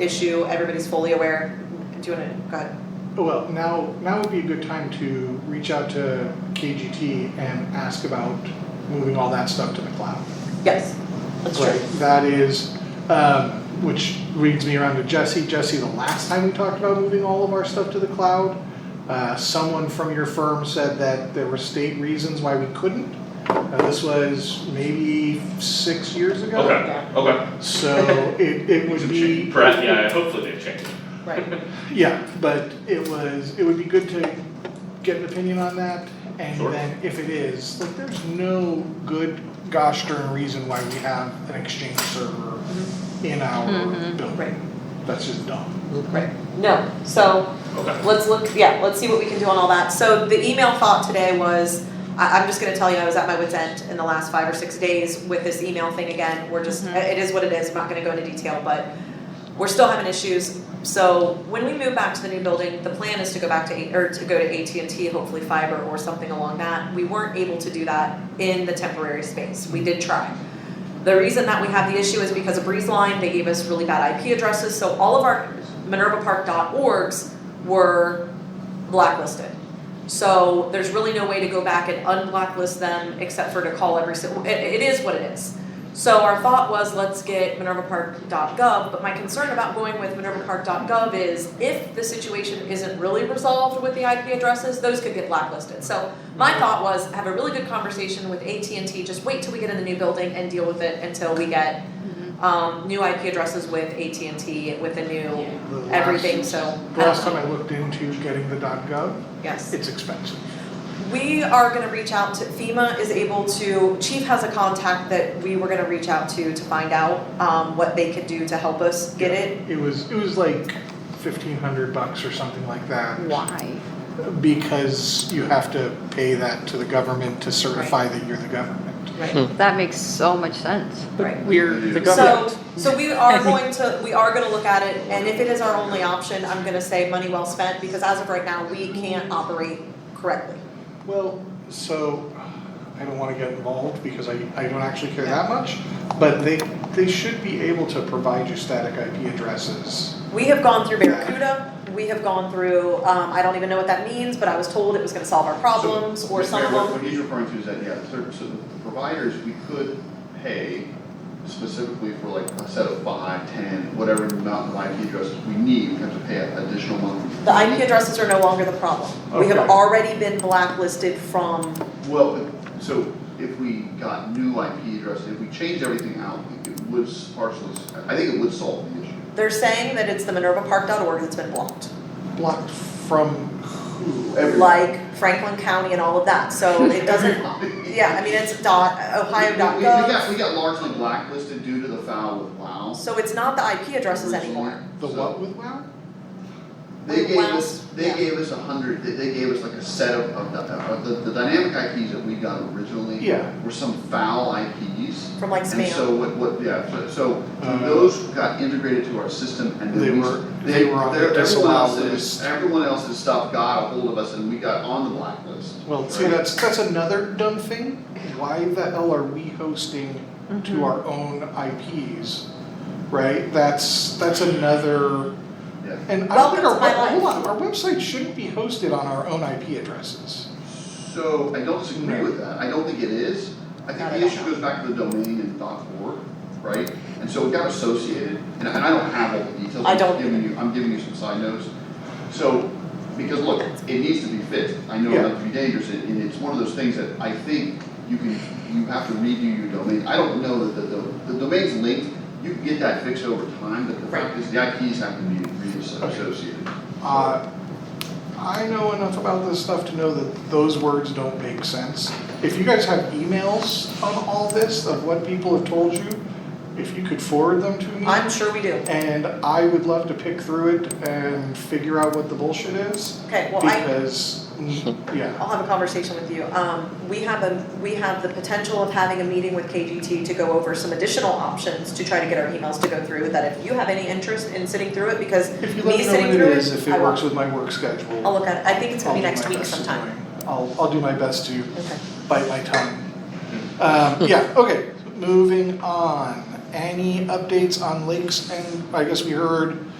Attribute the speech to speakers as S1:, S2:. S1: issue, everybody's fully aware. Do you wanna, go ahead.
S2: Oh, Well, now, now would be a good time to reach out to KGT and ask about moving all that stuff to the cloud.
S1: Yes, that's true.
S2: Like, that is, um, which leads me around to Jesse. Jesse, the last time we talked about moving all of our stuff to the cloud, uh, someone from your firm said that there were state reasons why we couldn't. Uh, this was maybe six years ago.
S3: Okay, okay.
S2: So it, it would be.
S3: Perhaps, yeah, hopefully they've changed.
S1: Right,
S2: Yeah, but it was, it would be good to get an opinion on that, and
S3: Sure.
S2: then if it is, like, there's no good gosh darn reason why we have an exchange server in our
S1: Mm-hmm. right,
S2: building. That's just dumb.
S1: right. No, so
S3: Okay,
S1: let's look, yeah, let's see what we can do on all that. So the email thought today was, I, I'm just gonna tell you, I was at my wit's end in the last five or six days with this email thing again. We're just, it is what it is, I'm not gonna go into detail, but we're still having issues. So when we move back to the new building, the plan is to go back to, A- or to go to AT&T, hopefully fiber or something along that. We weren't able to do that in the temporary space, we did try. The reason that we have the issue is because of Breeze Line, they gave us really bad IP addresses, so all of our minervapark.orgs were blacklisted. So there's really no way to go back and unblacklist them except for to call every, si- it, it is what it is. So our thought was, let's get minervapark.gov, but my concern about going with minervapark.gov is if the situation isn't really resolved with the IP addresses, those could get blacklisted. So my thought was, have a really good conversation with AT&T, just wait till we get in the new building and deal with it until we get um, new IP addresses with AT&T, with the new,
S2: The last-
S1: everything, so. uh,
S2: The last time I looked into getting the gov,
S1: Yes.
S2: it's expensive.
S1: We are gonna reach out to, FEMA is able to, Chief has a contact that we were gonna reach out to to find out, um, what they could do to help us get it.
S2: It was, it was like fifteen hundred bucks or something like that.
S4: Why?
S2: Because you have to pay that to the government to certify that you're the government.
S1: Right,
S4: That makes so much sense.
S1: right.
S2: We're the government.
S1: So, so we are going to, we are gonna look at it, and if it is our only option, I'm gonna say money well spent, because as of right now, we can't operate correctly.
S2: Well, so I don't want to get involved because I, I don't actually care that much, but they they should be able to provide you static IP addresses.
S1: We have gone through Barracuda, we have gone through, um, I don't even know what that means, but I was told it was gonna solve our problems, or
S5: So,
S1: some of
S5: Mayor,
S1: them.
S5: What what he's referring to is that, yeah, so, so the providers, we could pay specifically for like a set of five, ten, whatever amount of IP addresses we need, we have to pay an additional monthly.
S1: The IP addresses are no longer the problem. We have
S2: Okay.
S1: already been blacklisted from,
S5: Well, but- so if we got new IP addresses, if we change everything out, it would s- partially, s- I think it would solve the issue.
S1: they're saying that it's the minervapark.org that's been blocked.
S2: Blocked from who?
S5: Everyone.
S1: Like Franklin County and all of that, so it doesn't, yeah, I mean, it's dot,
S5: We- we- We got,
S1: ohio.gov.
S5: we got largely blacklisted due to the foul with WOW.
S1: So it's not the IP addresses anymore.
S2: The what with WoW?
S5: They
S1: Like
S5: gave
S1: WoW,
S5: us, they
S1: yeah.
S5: gave us a hundred, they, they gave us like a set of, of the, of the, the dynamic IPs that we got originally.
S2: Yeah.
S5: Were some foul IPs.
S1: From like
S5: And so
S1: spam.
S5: what, what, yeah, so, so
S2: Uh,
S5: those got integrated to our system and then
S2: They
S5: we-
S2: were- they were on the
S5: they're- everyone
S2: disallowed
S5: else's-
S2: list.
S5: Everyone else's stuff got a hold of us and we got on the blacklist.
S2: Well, see,
S5: right?
S2: that's that's another dumb thing. Why the hell are we hosting
S1: Mm-hmm.
S2: to our own IPs? Right? That's that's another.
S5: Yeah.
S2: And I don't think
S1: Welcome
S2: our
S1: to my
S2: web- hold
S1: life.
S2: on, our website shouldn't be hosted on our own IP addresses.
S5: So I don't disagree with that, I don't think it is, I think
S1: Not
S5: the
S1: at
S5: issue
S1: all.
S5: goes back to the domain and dot org, right? And so it got associated, and and I don't have all the details,
S1: I
S5: I'm
S1: don't
S5: just giving you, I'm giving you some side notes. So, because look, it needs to be fixed, I know
S2: Yeah.
S5: that to be dangerous, and and it's one of those things that I think you can, you have to redo your domain. I don't know that the, the, the domain's linked, you can get that fixed over time, but the fact is the IPs have to be reassociated.
S2: Uh, I know enough about this stuff to know that those words don't make sense. If you guys have emails on all this of what people have told you, if you could forward them to me.
S1: I'm sure we do.
S2: And I would love to pick through it and figure out what the bullshit is,
S1: Okay, well, I,
S2: because, mm, yeah.
S1: I'll have a conversation with you. Um, we have a, we have the potential of having a meeting with KGT to go over some additional options to try to get our emails to go through, that if you have any interest in sitting through it, because
S2: If you
S1: me
S2: let me know
S1: sitting
S2: what
S1: through
S2: it is, if
S1: it, I
S2: it works
S1: will,
S2: with my work schedule.
S1: I'll look at it. I think it's gonna be
S2: I'll do
S1: next
S2: my
S1: week
S2: best to
S1: sometime.
S2: bring- I'll, I'll do my best to
S1: Okay.
S2: bite my tongue. Um, yeah, okay, moving on. any updates on lakes and, I guess we heard